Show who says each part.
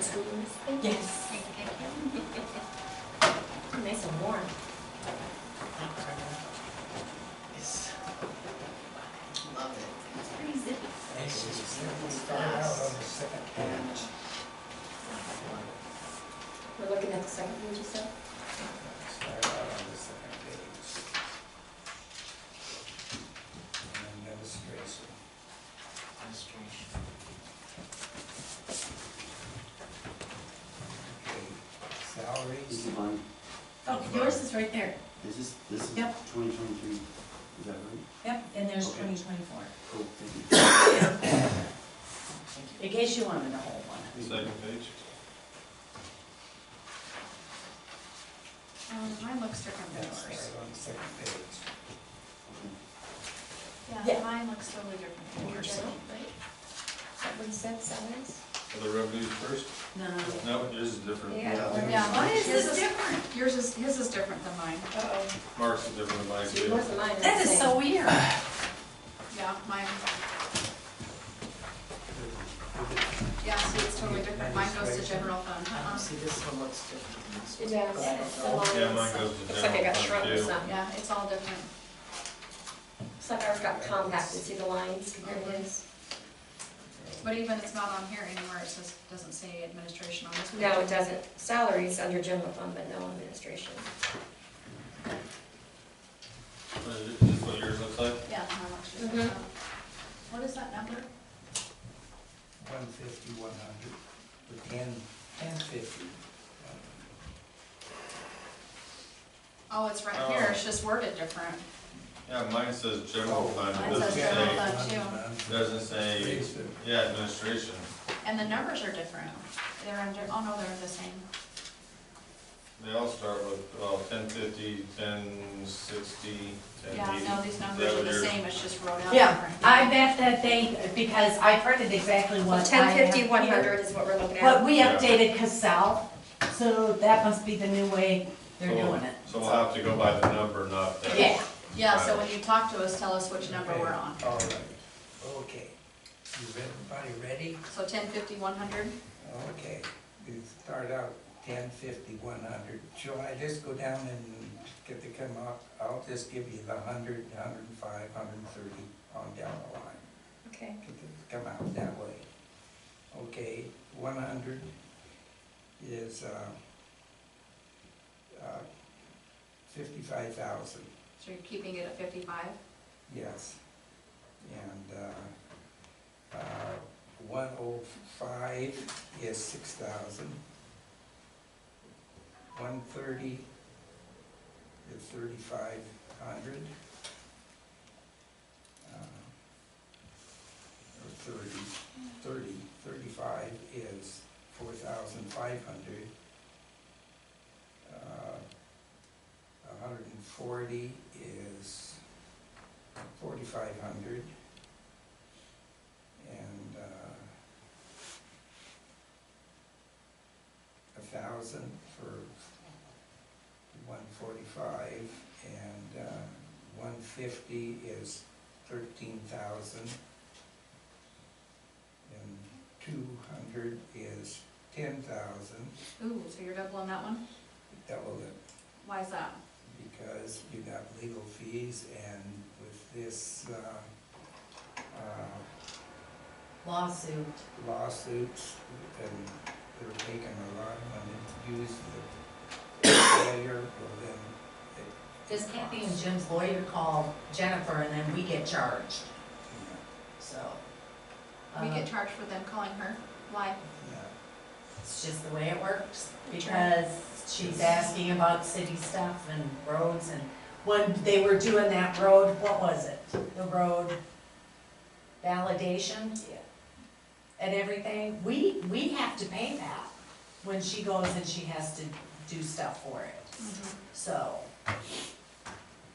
Speaker 1: school in this thing?
Speaker 2: Yes.
Speaker 1: Like, I can't- Nice and warm.
Speaker 2: It's, love it.
Speaker 1: It's pretty zippy.
Speaker 2: It's just beautiful
Speaker 3: Started out on
Speaker 2: fast.
Speaker 3: the second
Speaker 2: And
Speaker 3: page.
Speaker 1: We're looking at the second page you said?
Speaker 3: Started out on the second page. And then illustration.
Speaker 2: illustration.
Speaker 3: Okay, salaries.
Speaker 4: This is mine.
Speaker 5: Oh, yours is right there.
Speaker 4: This is, this is
Speaker 5: Yep.
Speaker 4: twenty twenty-three, is that right?
Speaker 5: Yep, and there's
Speaker 4: Okay.
Speaker 5: 2024.
Speaker 4: Cool, thank you.
Speaker 5: In case you wanted the whole one.
Speaker 6: Second page.
Speaker 1: Um, mine looks different
Speaker 3: Yeah, started on the second page.
Speaker 5: Yeah.
Speaker 1: mine looks totally different from yours, I don't think. Is that what you said, salaries?
Speaker 6: Are the revenues first?
Speaker 5: No.
Speaker 6: No, yours is different.
Speaker 4: Yeah.
Speaker 1: Yeah, mine is
Speaker 5: Yours
Speaker 1: this
Speaker 5: is
Speaker 1: different.
Speaker 5: Yours is, his is different than mine.
Speaker 1: Uh-oh.
Speaker 6: Mark's is different than mine
Speaker 1: See,
Speaker 6: too.
Speaker 1: yours and mine are the
Speaker 5: That is
Speaker 1: same.
Speaker 5: so weird.
Speaker 7: Yeah, mine, yeah, see, it's totally different, mine goes to general fund,
Speaker 2: Um,
Speaker 7: uh-uh.
Speaker 2: See, this one looks different than this
Speaker 1: It
Speaker 2: one.
Speaker 1: does.
Speaker 2: But I don't know.
Speaker 1: The
Speaker 6: Yeah,
Speaker 1: lines.
Speaker 6: mine goes to
Speaker 1: Looks like I
Speaker 6: general
Speaker 1: got
Speaker 6: fund,
Speaker 1: shrunk or
Speaker 6: too.
Speaker 1: something.
Speaker 7: yeah, it's all different.
Speaker 1: It's like ours got compacted, see the lines compared to his?
Speaker 7: But even it's not on here anywhere, it says, doesn't say administration on this one.
Speaker 1: No, it doesn't. Salaries under general fund, but no administration.
Speaker 6: But is this what yours looks like?
Speaker 7: Yeah, mine looks just like
Speaker 1: Mhm.
Speaker 7: that.
Speaker 1: Mm-hmm.
Speaker 7: What is that number?
Speaker 3: One fifty, one hundred, or ten, ten fifty.
Speaker 7: Oh, it's right
Speaker 6: Oh.
Speaker 7: here, it's just worded different.
Speaker 6: Yeah, mine says general fund, it
Speaker 7: Oh, Mine
Speaker 6: doesn't
Speaker 7: says general
Speaker 6: say,
Speaker 7: fund.
Speaker 6: doesn't say, yeah, administration.
Speaker 7: And the numbers are different, they're under, oh no, they're the same.
Speaker 6: They all start with, well, ten fifty, ten sixty, ten
Speaker 7: Yeah,
Speaker 6: eighty.
Speaker 7: no, these numbers are the same, it's just wrote out
Speaker 5: Yeah,
Speaker 7: different.
Speaker 5: I bet that they, because I printed exactly what I
Speaker 1: Well,
Speaker 5: have
Speaker 1: ten fifty, one
Speaker 5: here.
Speaker 1: hundred is what we're looking
Speaker 5: But
Speaker 1: at.
Speaker 5: we
Speaker 6: Yeah.
Speaker 5: updated Casell, so that must be the new way they're doing it.
Speaker 6: So we'll have to go by the number, not the.
Speaker 5: Yeah.
Speaker 7: Yeah, so when you talk to us, tell us which number we're on.
Speaker 3: All right, okay. Is everybody ready?
Speaker 7: So ten fifty, one hundred?
Speaker 3: Okay, we start out ten fifty, one hundred. Shall I just go down and get the come up? I'll just give you the hundred, hundred and five, hundred and thirty on down the line.
Speaker 1: Okay.
Speaker 3: Get the- Come out that way. Okay, one hundred is, uh, uh, fifty-five thousand.
Speaker 7: So you're keeping it at fifty-five?
Speaker 3: Yes. And uh, uh, 105 is 6,000. 130 is 3,500. Uh, Or 30, 30, 35 is 4,500. Uh, 140 is forty-five hundred. And, uh, a thousand for one forty-five, and, uh, one fifty is thirteen thousand. And two hundred is ten thousand,
Speaker 7: Ooh, so you're doubling that one?
Speaker 3: double it,
Speaker 7: Why is that?
Speaker 3: because you got legal fees, and with this, uh, uh,
Speaker 5: Lawsuit.
Speaker 3: lawsuits, and they're taking a lot of money to use the failure, well then, it,
Speaker 5: Because Kathy and Jim's lawyer called Jennifer, and then we get charged,
Speaker 3: you
Speaker 5: so.
Speaker 7: We
Speaker 5: uh,
Speaker 7: get charged for them calling her? Why?
Speaker 3: know,
Speaker 5: It's just the way it works, because she's asking about city stuff and roads, and when they were doing that road, what was it? The road validation? And everything, we, we have to pay that when she goes and she has to do stuff for it, so,